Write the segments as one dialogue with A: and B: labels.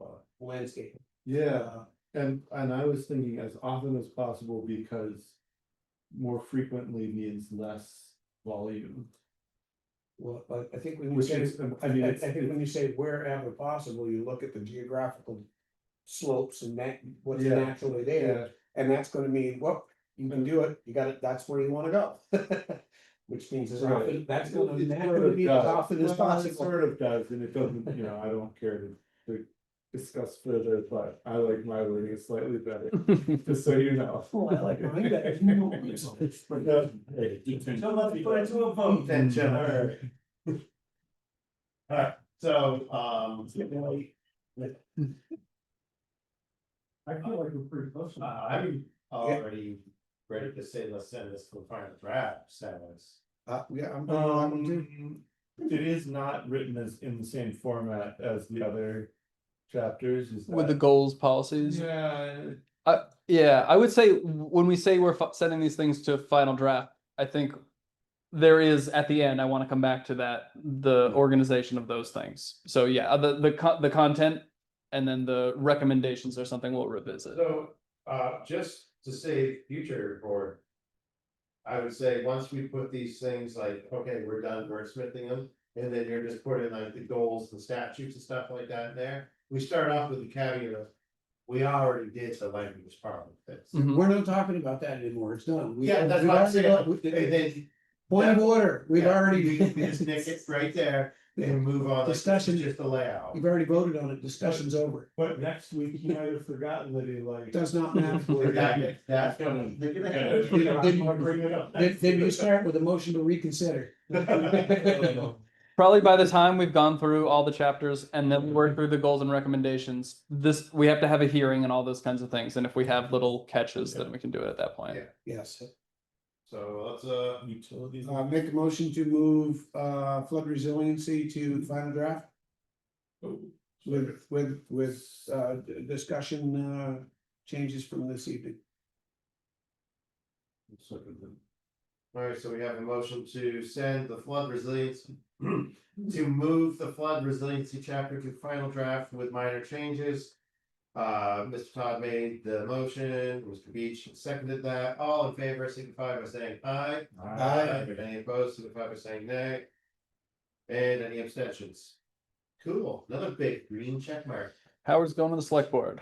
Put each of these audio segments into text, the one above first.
A: uh,
B: landscaping.
A: Yeah, and, and I was thinking as often as possible because more frequently means less volume.
B: Well, but I think when you
A: Which
B: say,
A: is, um, I
B: I
A: mean,
B: I
A: it's,
B: think when you say wherever possible, you look at the geographical slopes and that, what's
A: Yeah.
B: naturally there.
A: yeah,
B: And that's gonna mean, well, you can do it, you got it, that's where you wanna go. Which means as
A: Right.
B: often, that's
A: It
B: gonna, that's
A: sort
B: gonna
A: of
B: be as
A: does.
B: often as
A: Well, it
B: possible.
A: Sort of does, and it doesn't, you know, I don't care to, to discuss further, but I like my wording slightly better, just so you know.
B: Oh, I like mine better. No, it's all-
A: Yeah. Hey, you can-
C: So let's put it to a vote then, Jim. Alright, Alright, so, um.
A: I feel like we're pretty close.
C: uh, I'm already ready to say, let's send this to the final draft, status.
B: Uh, yeah, I'm.
A: Um, it is not written as in the same format as the other chapters, is
D: with the
A: that-
D: goals policies
A: Yeah,
D: yeah i would say w- when we say we're fi- sending these things to final draft i think there is at the end i want to come back to that the organization of those things so yeah uh, the the, co- the content and then the recommendations or something we'll revisit
C: So, uh, just to say future board. I would say, once we put these things like, okay, we're done wordsmithing them, and then you're just putting like the goals and statutes and stuff like that in there. We start off with the caveat of, we already did the language part of this.
A: Um,
D: Mhm.
B: We're not talking about that anymore, it's done. We-
C: Yeah, that's
B: we've
C: what I'm
B: already got-
C: saying,
B: we-
C: and then.
B: Point of order, we've
C: yeah,
B: already.
C: we- we Just nick it right there and move on. like, this is
B: Discussion.
C: Just the layout.
B: You've already voted on it, discussion's over,
A: but next week he might have forgotten that he
B: it
A: like.
B: does not matter.
C: That- That's gonna. they're gonna have-
B: Yeah, yeah.
C: they're gonna bring it up
B: Then,
C: next.
B: then you start with a motion to reconsider.
D: probably by the time we've gone through all the chapters and
C: Mm-hmm.
D: then we work through the goals and recommendations this we have to have a hearing and all those kinds of things and if we have little catches then we can do it at that point
C: Yeah.
B: Yes,
C: So let's uh.
A: Utilities.
B: uh, make a motion to move, uh, flood resiliency to final draft with, with, with, uh, d- discussion, uh, changes from this evening.
C: Alright, so we have a motion to send the flood resilience, to move the flood resiliency chapter to final draft with minor changes. Uh, Mr. Todd made the motion, Mr. Beach seconded that, all in favor signify by saying aye. Any opposed signify by saying nay. And any abstentions? Cool, another big green check mark.
D: howard's going to the select board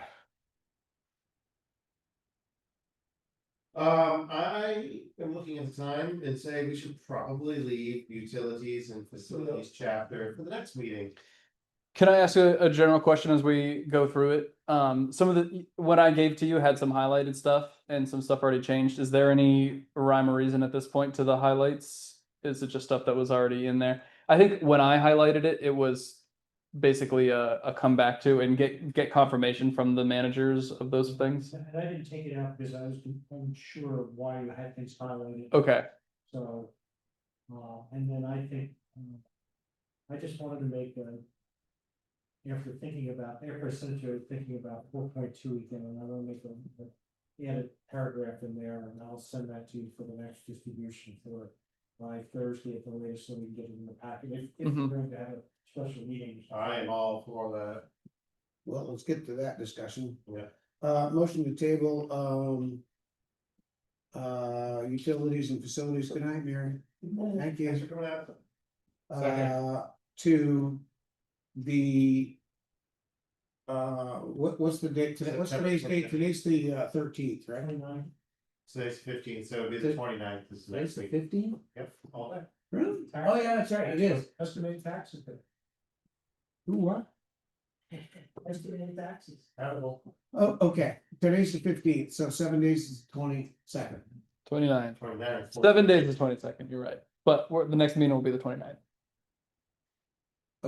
C: Um, I am looking at the time and say we should probably leave utilities and facilities chapter for the next meeting.
D: Can I ask a, a general question as we go through it? Um, some of the, what I gave to you had some highlighted stuff and some stuff already changed. Is there any rhyme or reason at this point to the highlights? Is it just stuff that was already in there? I think when I highlighted it, it was basically a, a comeback to and get, get confirmation from the managers of those things.
E: And I didn't take it out because I was unsure of why you had things highlighted,
B: Oh.
D: Okay,
E: so. Uh, and then I think, um, I just wanted to make a. After thinking about, after essentially thinking about four point two again, and I want to make a- a, add a paragraph in there, and I'll send that to you for the next distribution for. By Thursday at the latest, so we can get it in the packet, if, if we're
D: Mhm.
E: going to have a special meeting.
C: I am all for that.
B: Well, let's get to that discussion.
C: Yeah.
B: Uh, motion to table, um. Uh, utilities and facilities, good night, Mary. Thank you.
C: Thanks for coming out. Second.
B: Uh, to the. Uh, what, what's the date today? What's
C: September
B: today's date?
C: 29th.
B: Today's the uh, thirteenth, right?
E: Twenty-nine,
C: Today's fifteen, so it'll be the 29th. this is next week.
B: fifteenth?
C: Yep, all day.
B: Really? Oh, yeah, that's right, it is.
E: estimated taxes,
B: Who, what?
E: estimated taxes.
B: Oh, okay, today's the fifteenth, so seven days is twenty-second.
D: twenty-nine.
C: 29th.
D: Seven days is twenty-second, you're right. But we're, the next meeting will be the twenty-ninth.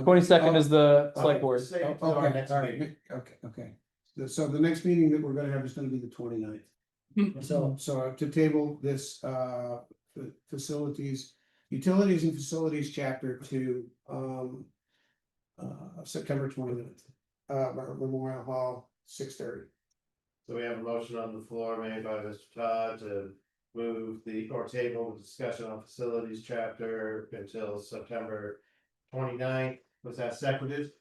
D: Twenty-second is the select board.
C: Save
B: Oh, Okay,
C: it till our next
B: all right,
C: meeting.
B: ne- okay, okay. The- So the next meeting that we're gonna have is gonna be the 29th.
E: Hmm.
B: So,
C: Hmm.
B: so uh, to table this, uh, f- facilities, utilities and facilities chapter to, um. Uh, September 29th, uh, Memorial Hall, six thirty.
C: So we have a motion on the floor made by Mr. Todd to move the, or table the discussion on facilities chapter until September 29th. Was that seconded?